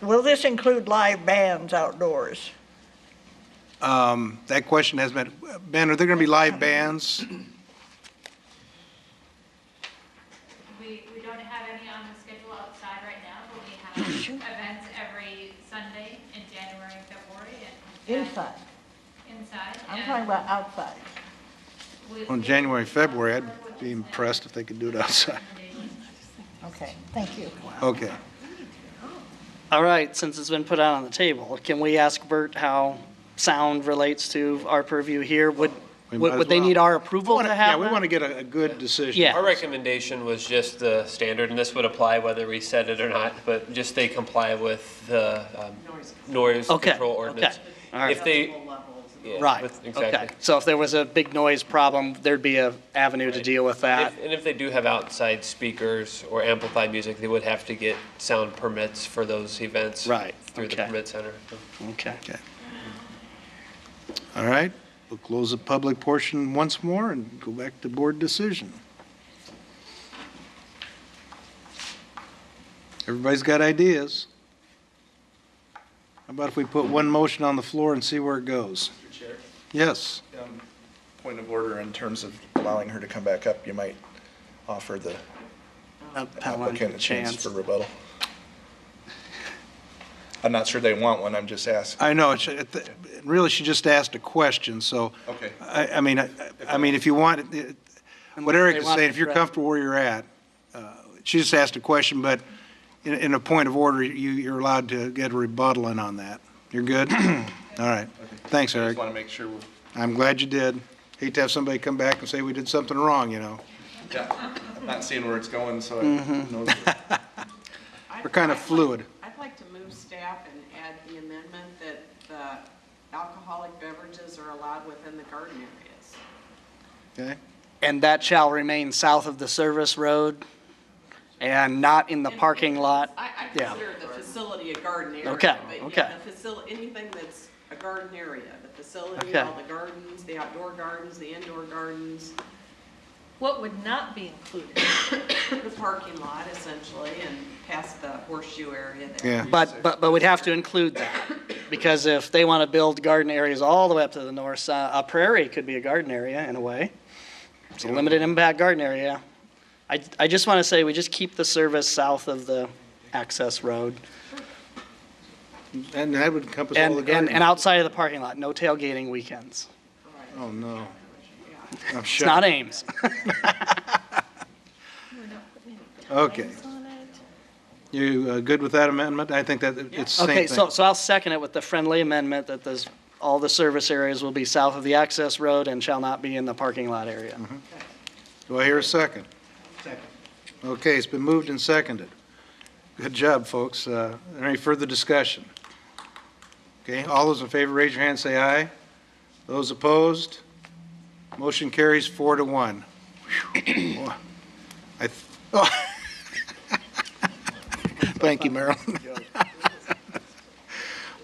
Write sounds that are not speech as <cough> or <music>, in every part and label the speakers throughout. Speaker 1: will this include live bands outdoors?
Speaker 2: Um, That question has been, Ben, are there going to be live bands?
Speaker 3: We, we don't have any on the schedule outside right now, but we have
Speaker 1: <coughs>
Speaker 3: events every Sunday in January and February and. and
Speaker 1: Inside,
Speaker 3: Inside.
Speaker 1: I'm
Speaker 3: and
Speaker 1: talking about outside.
Speaker 3: we-
Speaker 2: On
Speaker 3: we-
Speaker 2: January, February, I'd be impressed if they could do it outside. <laughs>
Speaker 1: Okay, thank you.
Speaker 2: Okay.
Speaker 4: All right, since it's been put out on the table, can we ask Bert how sound relates to our purview here? Would,
Speaker 2: We
Speaker 4: would
Speaker 2: might as
Speaker 4: would they
Speaker 2: well.
Speaker 4: need our approval to
Speaker 2: Yeah,
Speaker 4: have
Speaker 2: we want to
Speaker 4: that?
Speaker 2: get a a good decision.
Speaker 4: Yeah.
Speaker 5: Our recommendation was just the standard, and this would apply whether we said it or not, but just they comply with the um, noise
Speaker 4: Okay,
Speaker 5: control
Speaker 4: okay.
Speaker 5: ordinance.
Speaker 4: All right.
Speaker 5: If they. yeah,
Speaker 4: Right,
Speaker 5: with-
Speaker 4: okay.
Speaker 5: Exactly.
Speaker 4: So if there was a big noise problem, there'd be a avenue to
Speaker 5: Right.
Speaker 4: deal with that.
Speaker 5: If- And if they do have outside speakers or amplified music, they would have to get sound permits for those events.
Speaker 4: Right,
Speaker 5: Through the
Speaker 4: okay.
Speaker 5: permit center.
Speaker 4: Okay.
Speaker 2: Okay. All right, we'll close the public portion once more and go back to board decision. Everybody's got ideas. How about if we put one motion on the floor and see where it goes?
Speaker 6: Chair,
Speaker 2: Yes,
Speaker 6: um, point of order in terms of allowing her to come back up, you might offer the applicant a chance for rebuttal. I'm not sure they want one, I'm just asking.
Speaker 2: I know, it's, it- really, she just asked a question, so.
Speaker 6: Okay.
Speaker 2: I, I mean, I, I mean, if you want, it- what Eric is saying, if you're comfortable where you're at, uh, she just asked a question, but in, in a point of order, you, you're allowed to get a rebuttal in on that. You're good? All right. Thanks,
Speaker 6: I
Speaker 2: Eric.
Speaker 6: just want to make sure we're
Speaker 2: I'm glad you did. Hate to have somebody come back and say we did something wrong, you know?
Speaker 6: yeah, I'm not seeing where it's going, so I know. that-
Speaker 2: We're kind of fluid.
Speaker 7: I'd like to move staff and add the amendment that the alcoholic beverages are allowed within the garden areas.
Speaker 2: Okay?
Speaker 4: And that shall remain south of the service road and not in the parking lot?
Speaker 7: I, I
Speaker 4: Yeah.
Speaker 7: consider the facility a garden area.
Speaker 4: Okay,
Speaker 7: But yeah,
Speaker 4: okay.
Speaker 7: the facility, anything that's a garden area, the facility,
Speaker 4: Okay.
Speaker 7: all the gardens, the outdoor gardens, the indoor gardens,
Speaker 8: What would not be included?
Speaker 7: the parking lot essentially, and past the horseshoe area there.
Speaker 2: Yeah.
Speaker 4: But, but, but we'd have to include that, because if they want to build garden areas all the way up to the north side, a prairie could be a garden area in a way. It's a limited impact garden area. I, I just want to say, we just keep the service south of the access road.
Speaker 2: And that would encompass all
Speaker 4: And,
Speaker 2: the
Speaker 4: and, and
Speaker 2: garden.
Speaker 4: outside of the parking lot, no tailgating weekends.
Speaker 2: Oh, no. I'm
Speaker 4: It's not
Speaker 2: shocked.
Speaker 4: Ames.
Speaker 2: Okay. You uh, good with that amendment? I think that it's the same thing.
Speaker 4: Okay, so, so I'll second it with the friendly amendment that this, all the service areas will be south of the access road and shall not be in the parking lot area.
Speaker 2: Mm-hmm. Do I hear a second? Second. Okay, it's been moved and seconded. Good job, folks. Uh, Any further discussion? Okay, all those in favor, raise your hand, say aye. Those opposed? Motion carries four to one. Whew. Boy. I th- oh. Thank you, Marilyn.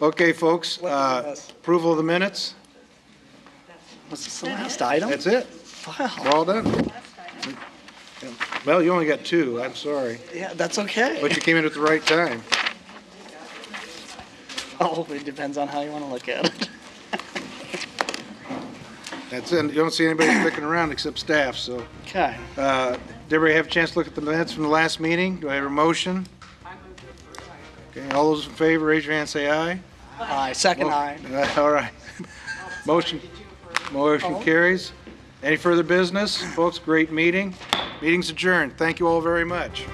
Speaker 2: Okay, folks, uh, approval of the minutes?
Speaker 4: Was this the last item?
Speaker 2: That's it. We're all done. Well, you only got two, I'm sorry.
Speaker 4: Yeah, that's okay. <laughs>
Speaker 2: But you came in at the right time.
Speaker 4: Oh, it depends on how you want to look at it.
Speaker 2: That's it. You don't see anybody sticking around except staff, so.
Speaker 4: Okay.
Speaker 2: uh, Did everybody have a chance to look at the minutes from the last meeting? Do I have a motion?
Speaker 7: I move to approve.
Speaker 2: Okay, all those in favor, raise your hand, say aye. <laughs>
Speaker 4: Aye, second aye.
Speaker 2: Uh, All right. Motion, motion carries. Any further business? Folks, great meeting. Meeting's adjourned. Thank you all very much.